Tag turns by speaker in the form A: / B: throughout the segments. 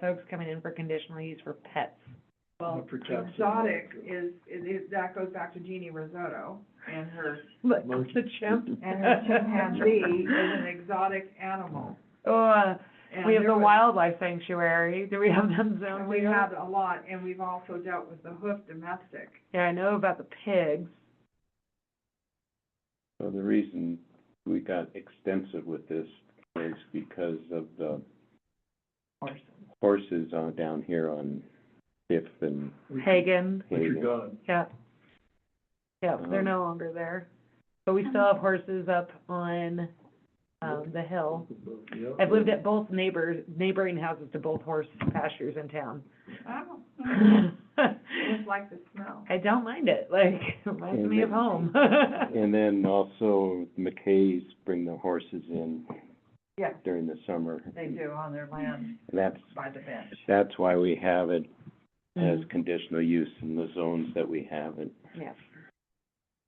A: folks coming in for conditional use for pets.
B: Well,
C: For Jackson.
B: exotic is, is, is- that goes back to Jeannie Risotto and her,
D: Look,
C: Most-
D: the chimp.
B: and her chimpanzee is an exotic animal.
D: Oh, uh,
B: And
D: we have
B: there
D: the
B: was-
D: wildlife sanctuary. Do we have them
B: and
D: zoned
B: We
D: here?
B: have a lot, and we've also dealt with the hoof domestic.
D: Yeah, I know about the pigs.
E: So the reason we got extensive with this is because of the horses on, down here on Fifth and
C: Richard-
D: Hagen,
C: Richard
E: Hagen.
C: Dodd.
D: yeah. Yeah, they're
E: Um,
D: no longer there. But we still have horses up on, um, the hill.
C: Yeah.
D: I've lived at both neighbors, neighboring houses to both horse pastures in town.
B: Oh,
D: Mm-hmm.
B: just
D: I
B: like the smell.
D: don't mind it, like, it reminds me of home.
E: And then also McKay's bring the horses in
B: Yeah.
E: during the summer.
B: on their land
E: And that's,
B: by the bench.
E: that's why we have it as
A: Mm-hmm.
D: Mm,
E: conditional use in the zones that we have it.
D: Yeah.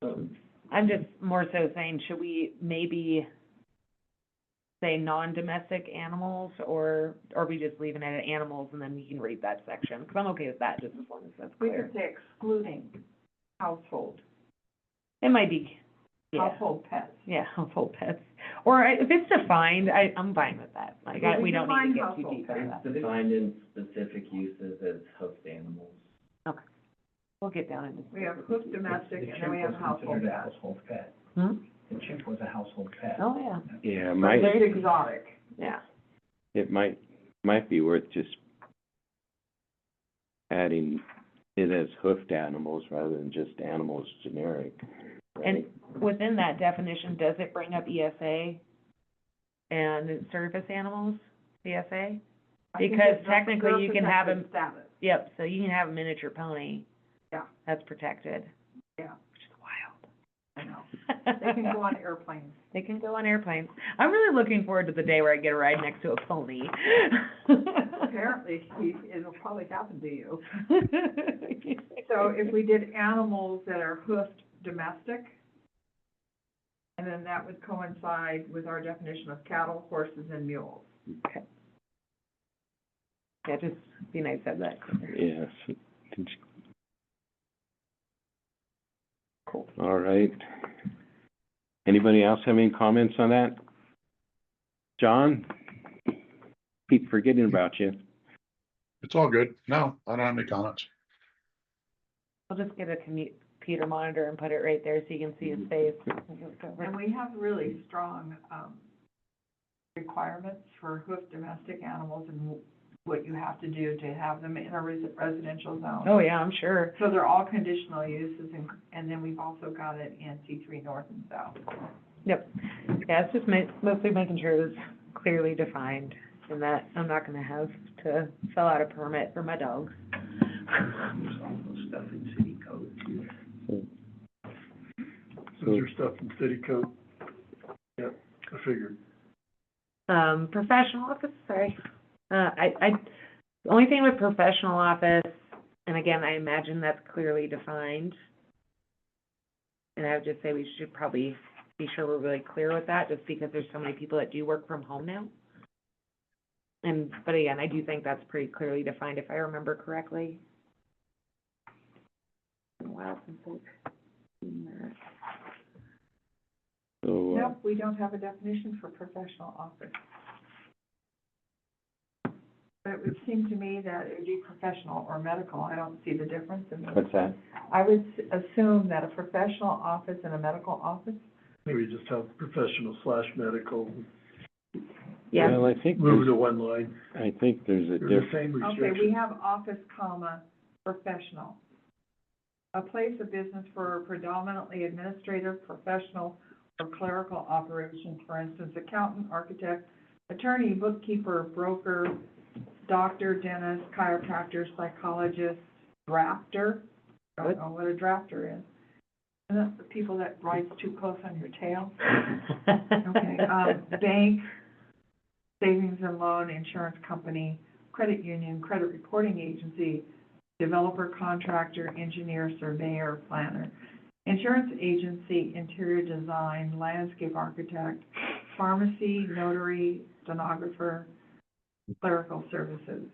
C: Um,
A: I'm just more so saying, should we maybe say non-domestic animals, or, or we just leaving it at animals, and then we can read that section? Because I'm okay with that, just as long as that's
B: We
A: clear.
B: could say excluding household,
F: Mm-hmm.
A: It might be, yeah,
B: household pets.
A: yeah, household pets, or I- if it's defined, I, I'm fine with that, like, I- we don't need to get too deep into that.
F: It's defined in specific uses as hoofed animals.
A: We'll get down into.
B: We have hoof domestic,
F: The
B: and then we have
F: chimp was
B: household
F: considered a
B: pets.
F: Household pet.
D: Hmm?
F: The chimp was a household pet.
A: Oh, yeah,
E: Yeah,
B: But
E: might,
B: It's exotic.
A: yeah,
E: it might, might be worth just adding it as hoofed animals rather than just animals generic.
A: and within that definition, does it bring up ESA and service animals, E CSA?
B: I think
A: Because
B: it's
A: technically
B: their
A: you can have 'em-
B: protected Status.
A: Yep, so you can have a miniature pony.
B: Yeah.
A: That's protected.
B: Yeah.
A: Which is wild.
B: I know. They can go on airplanes.
A: They can go on airplanes. I'm really looking forward to the day where I get a ride next to a pony.
B: Apparently, he, it'll probably happen to you. So if we did animals that are hoofed domestic, and then that would coincide with our definition of cattle, horses, and mules.
A: Yeah, just be nice to have that.
E: Yes. Cool. All right. Anybody else have any comments on that? John? Keep forgetting about you.
G: It's all good. No, I don't have any comments.
A: I'll just get a commu- computer monitor and put it right there so you can see his face.
B: And we have really strong, um, requirements for hoofed domestic animals and what you have to do to have them in a resi- residential zone.
A: Oh, yeah, I'm sure.
B: So they're all conditional uses, and, and then we've also got it in C three north and south.
A: Yeah, it's just ma- mostly making sure it's clearly defined and that I'm not gonna have to fill out a permit for my dogs.
F: There's also stuff in city code too.
C: Those are stuff in city code. Yeah, I figured.
A: um, professional office, sorry. Uh, I, I, the only thing with professional office, and again, I imagine that's clearly defined. And I would just say we should probably be sure we're really clear with that, just because there's so many people that do work from home now. And, but again, I do think that's pretty clearly defined, if I remember correctly. Been a while since I've seen that.
E: So, uh,
B: Nope, we don't have a definition for professional office. But it would seem to me that it would be professional or medical, I don't see the difference in those.
E: what's that?
B: I would s- assume that a professional office and a medical office,
C: Maybe just have professional slash medical,
A: Yeah,
E: Well, I think,
C: move
E: there's-
C: to one line.
E: I think there's a
C: They're the
E: difference.
C: same
B: okay, we
C: restriction.
B: have office, comma, professional. A place of business for predominantly administrative, professional, or clerical operations, for instance, accountant, architect, attorney, bookkeeper, broker, doctor, dentist, chiropractor, psychologist, drafter. Don't
A: Good.
B: know what a drafter is. And that's the people that rides too close on your tail. Okay, um, bank, savings and loan, insurance company, credit union, credit reporting agency, developer, contractor, engineer, surveyor, planner, insurance agency, interior design, landscape architect, pharmacy, notary, stenographer, clerical services.